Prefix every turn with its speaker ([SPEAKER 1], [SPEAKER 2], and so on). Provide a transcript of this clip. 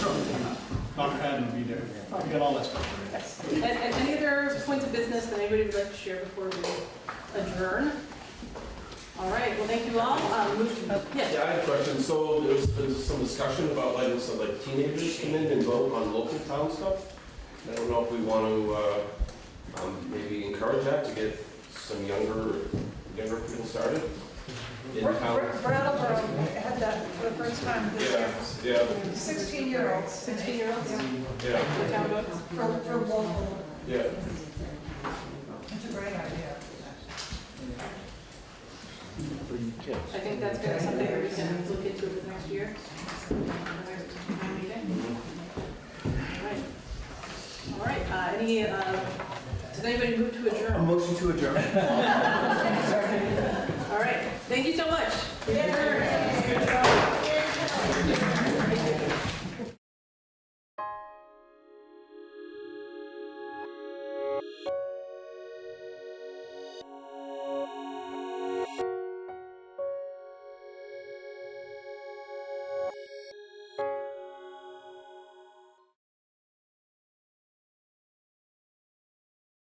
[SPEAKER 1] Dr. Haddon will be there. We got all that stuff. ready.
[SPEAKER 2] And, and any other points of business that anybody would like to share before we adjourn? All right, well, thank you all. Um, move- yes.
[SPEAKER 3] Yeah, I had a question. So there was, there was some discussion about letting some like teenagers come in and vote on local town stuff. I don't know if we want to, uh, um, maybe encourage that to get some younger, younger people started in
[SPEAKER 4] Bra-
[SPEAKER 3] town.
[SPEAKER 4] Bra- Brattleboro had that for the first time this
[SPEAKER 3] Yeah,
[SPEAKER 4] year.
[SPEAKER 3] yeah,
[SPEAKER 4] Sixteen-year-olds.
[SPEAKER 2] 16-year-olds?
[SPEAKER 3] yeah,
[SPEAKER 2] The town votes?
[SPEAKER 4] For, for local,
[SPEAKER 3] yeah.
[SPEAKER 4] it's a great idea.
[SPEAKER 2] I think that's gonna be something that we can look into for next year. Next town meeting. All right. All right, uh, any, uh, does anybody move to adjourn?
[SPEAKER 5] motion to adjourn.
[SPEAKER 2] All right, thank you so much.
[SPEAKER 4] Yeah.